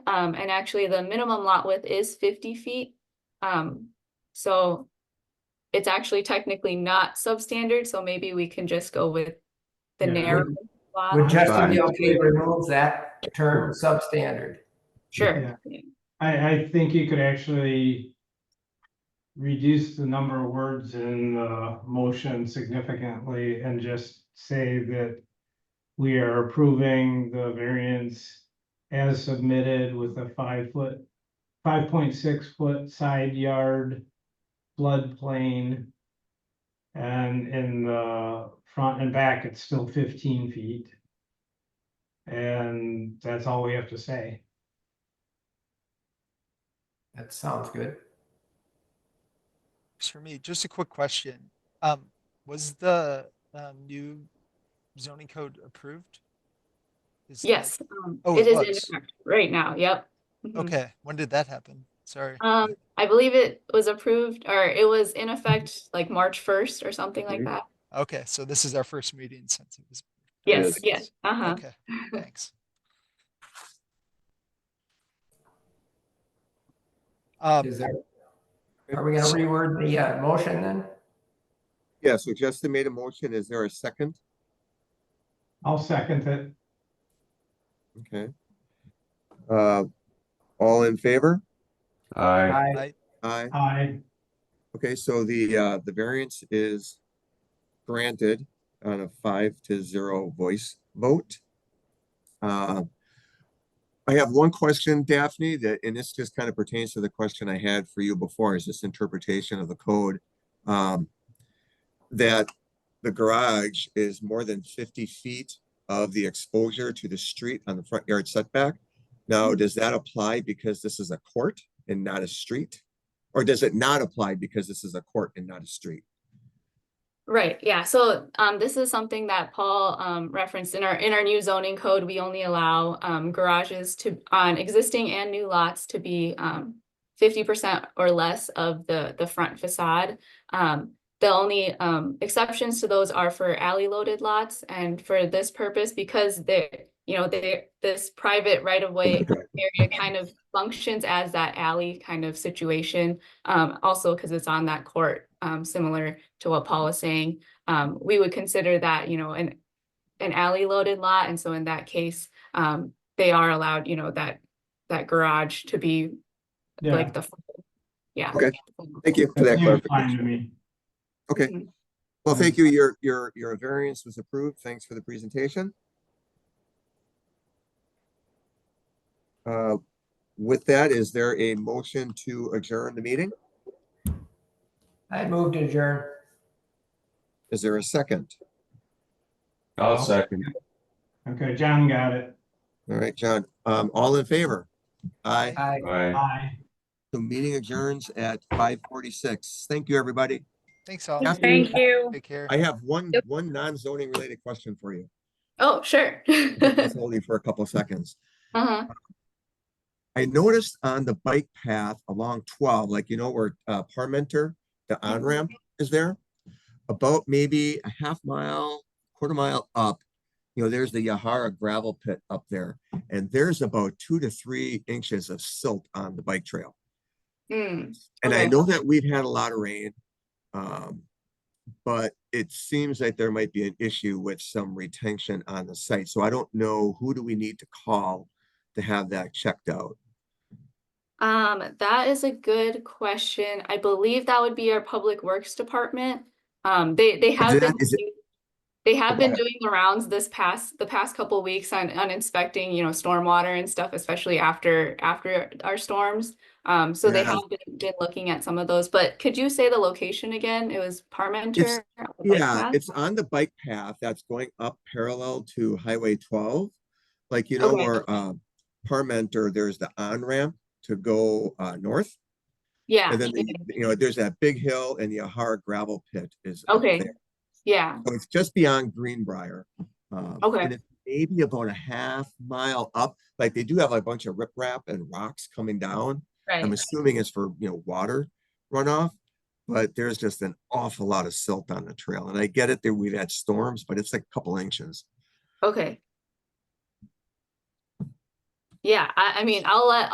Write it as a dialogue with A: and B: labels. A: Um, and actually the minimum lot width is fifty feet. Um, so it's actually technically not substandard, so maybe we can just go with the
B: Yeah.
A: narrow
C: Would
A: lot.
C: Justin
D: Fine.
C: be okay to remove that term substandard?
A: Sure.
B: I, I think you could actually reduce the number of words in the motion significantly and just say that we are approving the variance as submitted with a five foot, five point six foot side yard floodplain. And in the front and back, it's still fifteen feet. And that's all we have to say.
C: That sounds good.
E: Works For me, just a quick question. Um, was the um, new zoning code approved? Is that-
A: Yes, um,
E: Oh,
A: it
E: it
A: is in
E: was.
A: effect right now, yep. Mhm.
E: Okay, when did that happen? Sorry.
A: Um, I believe it was approved, or it was in effect like March first or something like
D: Mhm.
A: that.
E: Okay, so this is our first meeting since it was.
A: Yes,
D: Yes.
A: yes, uh-huh.
E: Okay, thanks. Um,
C: Is there? Are we gonna reword the uh motion then?
D: Yeah, so Justin made a motion. Is there a second?
B: I'll second it.
D: Okay. Uh, all in favor?
C: I,
F: Aye.
D: Aye.
B: I,
D: Okay, so the, uh, the variance is granted on a five to zero voice vote. Uh, I have one question, Daphne, that, and this just kind of pertains to the question I had for you before, is this interpretation of the code. um, That the garage is more than fifty feet of the exposure to the street on the front yard setback. Now, does that apply because this is a court and not a street? Or does it not apply because this is a court and not a street?
A: Right, yeah, so um this is something that Paul um referenced in our in our new zoning code, we only allow um garages to on existing and new lots to be um fifty percent or less of the the front facade. Um the only um exceptions to those are for alley loaded lots and for this purpose, because they you know, they this private right of way area kind of functions as that alley kind of situation. Um, also because it's on that court, um, similar to what Paul was saying, um, we would consider that, you know, an, an alley loaded lot. And so in that case, um, they are allowed, you know, that, that garage to be
B: yeah,
A: like the, yeah.
D: Okay. Thank you for that
B: that's fine to
D: clarification.
B: me.
D: Okay,
A: Mhm.
D: well, thank you. Your, your, your variance was approved. Thanks for the presentation. Uh, With that, is there a motion to adjourn the meeting?
C: I moved to adjourn.
D: Is there a second?
F: I'll second.
B: Okay, John got it.
D: All right, John, um, all in favor? Aye.
C: I.
F: Aye.
B: Aye.
D: The meeting adjourns at five forty-six. Thank you, everybody.
E: thanks all.
D: Thank
G: Thank you.
E: Take care.
D: I have one,
G: Yep.
D: one non-zoning related question for you.
A: Oh, sure.
D: Just Holding for a couple seconds.
A: Uh-huh,
D: I noticed on the bike path along twelve, like, you know, where uh, Parmenter, the on-ramp is there. About maybe a half mile, quarter mile up, you know, there's the Yahara gravel pit up there. And there's about two to three inches of silt on the bike trail.
A: Mm,
D: And I
A: Okay.
D: know that we've had a lot of rain. Um, but it seems like there might be an issue with some retention on the site. So I don't know, who do we need to call to have that checked out?
A: um, that is a good question. I believe that would be our Public Works Department. Um, they, they have
D: that-
A: been.
D: is it-
A: doing- They have been
D: Right.
A: doing the rounds this past, the past couple weeks on, on inspecting, you know, stormwater and stuff, especially after, after our storms. Um, so they
D: Yeah.
A: have been, been looking at some of those, but could you say the location again? It was Parmenter? on the bike
D: Yeah,
A: path?
D: it's on the bike path that's going up parallel to Highway twelve. Like, you know,
A: Okay.
D: where uh Parmenter, there's the on-ramp to go uh north.
A: Yeah,
D: And then, the-
A: okay.
D: you know, there's that big hill and the Ahara gravel pit is. up
A: okay,
D: there.
A: yeah,
D: So It's just beyond Greenbrier. um,
A: Okay.
D: and it's Maybe about a half mile up, like they do have a bunch of riprap and rocks coming down. I'm
A: right,
D: assuming it's for, you know, water runoff. But there's just an awful lot of silt on the trail. And I get it that we've had storms, but it's like a couple inches.
A: okay. yeah, I, I mean, I'll let,